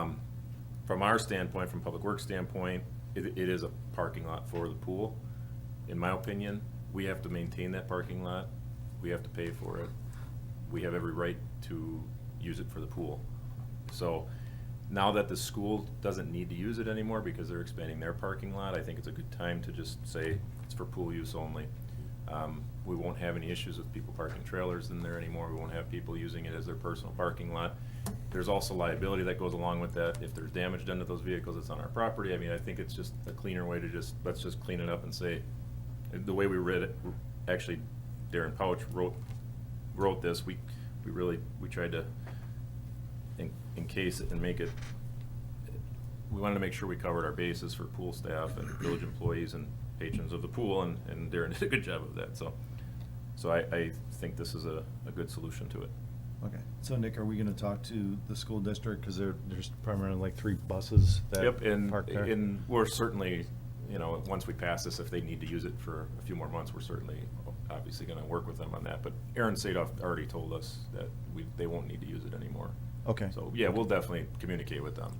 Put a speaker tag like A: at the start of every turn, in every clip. A: Um, from our standpoint, from Public Works standpoint, it, it is a parking lot for the pool. In my opinion, we have to maintain that parking lot, we have to pay for it, we have every right to use it for the pool. So now that the school doesn't need to use it anymore because they're expanding their parking lot, I think it's a good time to just say it's for pool use only. Um, We won't have any issues with people parking trailers in there anymore. We won't have people using it as their personal parking lot. There's also liability that goes along with that. If there's damage done to those vehicles, it's on our property. I mean, I think it's just a cleaner way to just, let's just clean it up and say, the way we read it, actually Darren Pouch wrote, wrote this, we, we really, we tried to en- encase it and make it, we wanted to make sure we covered our bases for pool staff and village employees and patrons of the pool, and, and Darren did a good job of that, so. So I, I think this is a, a good solution to it.
B: Okay, so Nick, are we gonna talk to the school district, cause there, there's primarily like three buses
A: Yep,
B: that
A: and,
B: park there?
A: and we're certainly, you know, once we pass this, if they need to use it for a few more months, we're certainly obviously gonna work with them on that, but Aaron Sadoff already told us that we, they won't need to use it anymore.
B: Okay.
A: So, yeah, we'll definitely communicate with them.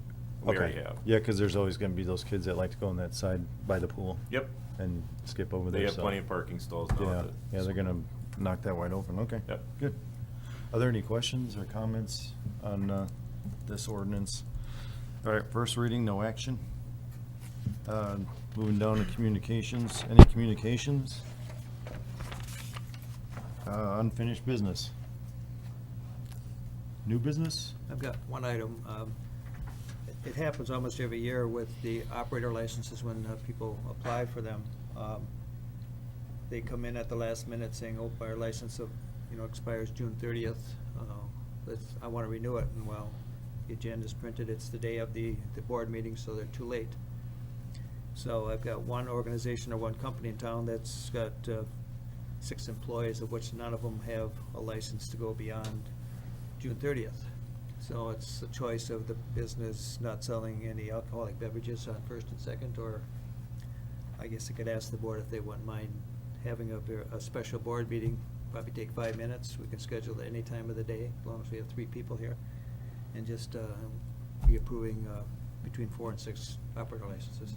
A: We already
B: Okay.
A: have.
B: Yeah, cause there's always gonna be those kids that like to go on that side by the pool.
A: Yep.
B: And skip over there.
A: They have
B: so-
A: plenty of parking stalls now.
B: Yeah,
A: at the
B: yeah, they're
A: school.
B: gonna knock that wide open, okay.
A: Yep.
B: Good. Are there any questions or comments on, uh, this ordinance? All right, first reading, no action. Uh, moving down to communications, any communications? Uh, unfinished business? New business?
C: I've got one item. um, it- It happens almost every year with the operator licenses when uh, people apply for them. Um, They come in at the last minute saying, oh, our license, of you know, expires June thirtieth. uh, Let's, I want to renew it. And well, the agenda's printed, it's the day of the, the board meeting, so they're too late. So I've got one organization or one company in town that's got uh, six employees, of which none of them have a license to go beyond June thirtieth. So it's a choice of the business not selling any alcoholic beverages on first and second, or I guess I could ask the board if they wouldn't mind having a, ver- a special board meeting, probably take five minutes. We can schedule it any time of the day, as long as we have three people here. And just, uh, be approving, uh, between four and six operator licenses.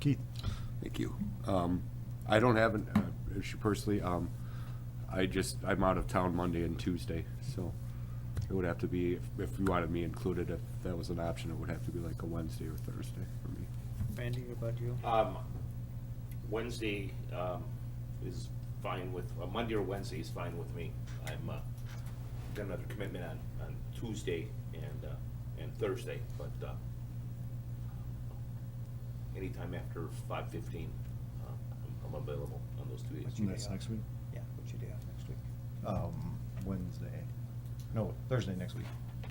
B: Keith?
D: Thank you. Um, I don't have an uh, issue personally. Um, I just, I'm out of town Monday and Tuesday, so it would have to be, if- if you wanted me included, if that was an option, it would have to be like a Wednesday or Thursday for me.
C: Randy, what about you?
E: Um, Wednesday, um, is fine with, uh, Monday or Wednesday is fine with me. I'm, uh, got another commitment on, on Tuesday and, uh, and Thursday, but, uh, anytime after five fifteen, uh, I'm- I'm available on those two days.
C: What's your
B: That's
C: day off?
B: next week?
C: Yeah, what's your day off next week?
B: Um, Wednesday. No, Thursday next week.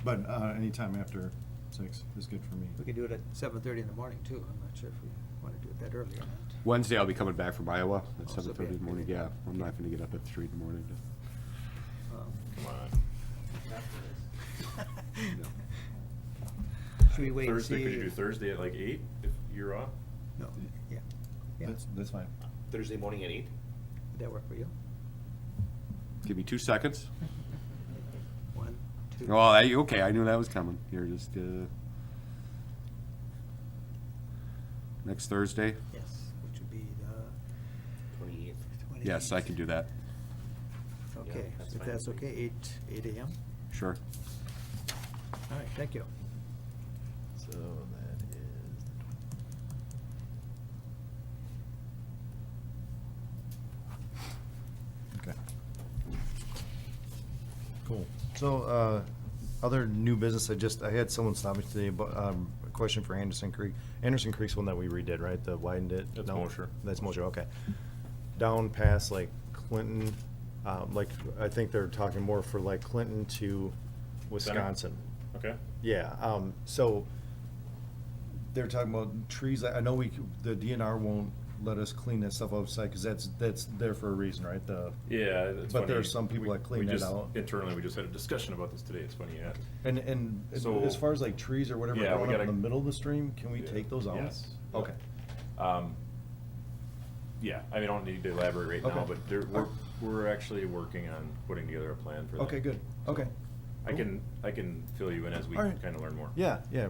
B: But, uh, anytime after six is good for me.
C: We could do it at seven thirty in the morning too. I'm not sure if we wanna do it that early or not.
D: Wednesday, I'll be coming back from Iowa at
C: Oh, so
D: seven thirty in the morning.
C: be-
D: Yeah, I'm not gonna get up at three in the morning.
C: Um,
A: Come on.
C: Should we wait and see?
A: Thursday, could you do Thursday at like eight, if you're off?
C: No, yeah, yeah,
B: That's, that's fine.
E: Thursday morning at eight?
C: would that work for you?
D: Give me two seconds.
C: One, two.
D: Well, I, okay, I knew that was coming. You're just, uh, next Thursday?
C: Yes, which would be the
E: Twenty-eighth.
C: twenty.
D: Yes, I can do that.
C: Okay,
E: Yeah, that's
C: if
E: fine
C: that's
E: with me.
C: okay, eight, eight AM?
D: Sure.
C: All right, thank you.
B: So that is. Okay. Cool. So, uh, other new business, I just, I had someone stop me today, but, um, a question for Anderson Creek. Anderson Creek's one that we redid, right? The widened it?
A: That's
B: No?
A: Mosher.
B: That's Mosher, okay. Down past like Clinton, um, like, I think they're talking more for like Clinton to Wisconsin.
A: Okay.
B: Yeah, um, so they're talking about trees. I I know we, c- the DNR won't let us clean that stuff outside because that's, that's there for a reason, right? The,
A: Yeah. it's
B: But there
A: funny.
B: are some people
A: We-
B: that clean
A: we
B: that
A: just-
B: out.
A: Internally, we just had a discussion about this today, it's funny, yeah.
B: and, and
A: So-
B: as far as like trees or whatever
A: Yeah, we
B: growing up in
A: gotta-
B: the middle of the stream, can we
A: Yeah.
B: take those out?
A: Yes.
B: Okay.
A: Um, Yeah, I mean, I don't need to elaborate right now,
B: Okay.
A: but there, we're, we're actually working on putting together a plan for that.
B: Okay, good. Okay.
A: I can, I can fill you in as we
B: All right.
A: kind of learn more.
B: Yeah, yeah,